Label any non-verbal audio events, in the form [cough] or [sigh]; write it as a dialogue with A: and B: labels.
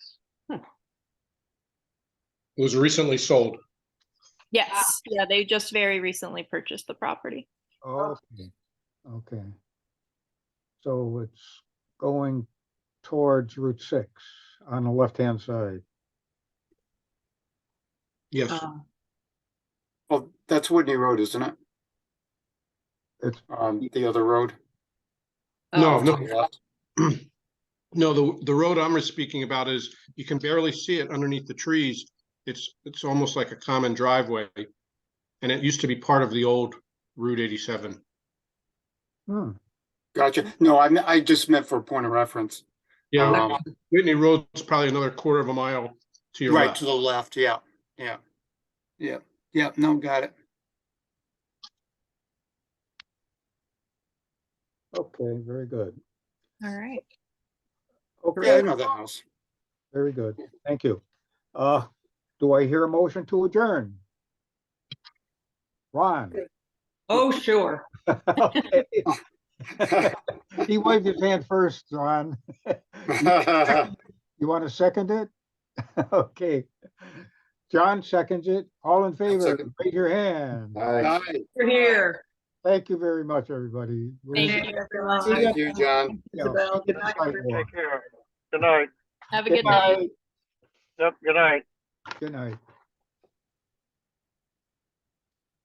A: It was recently sold.
B: Yes, yeah, they just very recently purchased the property.
C: Oh, Okay, okay. So it's going towards Route 6 on the left-hand side.
A: Yes,
D: Um,
E: Well, Oh, that's Whitney Road, isn't it?
C: It's,
E: Um, the other road.
A: no,
D: oh,
A: no.
E: to the left.
A: No, the, the road I'm speaking about is, you can barely see it underneath the trees. It's, it's almost like a common driveway. And it used to be part of the old Route eighty-seven.
C: hmm,
E: Gotcha. No, I, me- I just meant for a point of reference.
A: Yeah,
E: Um,
A: Whitney Road's probably another quarter of a mile to your
E: Right
A: left.
E: to the left, yeah, yeah. Yeah, yeah, no, got it.
C: okay, very good.
B: All right.
E: Yeah, I
C: Okay,
E: know that house. [laughs]
C: very good. Thank you. Uh, do I hear a motion to adjourn? Ron?
D: Oh, sure.
C: Okay. [laughs] He waved his hand first, Ron. You want to second it? [laughs] Okay. John seconds it. All in favor,
E: second.
C: raise your hand.
E: Hi,
D: We're here.
C: Thank you very much, everybody. We'll
B: Thank
C: see
B: you,
D: everyone.
E: thank you, John.
C: you on
D: Isabel, good night.
C: Friday.
F: Take care. Good night.
B: Have a
C: Good
B: good night.
C: night.
F: Yep, good night.
C: Good night.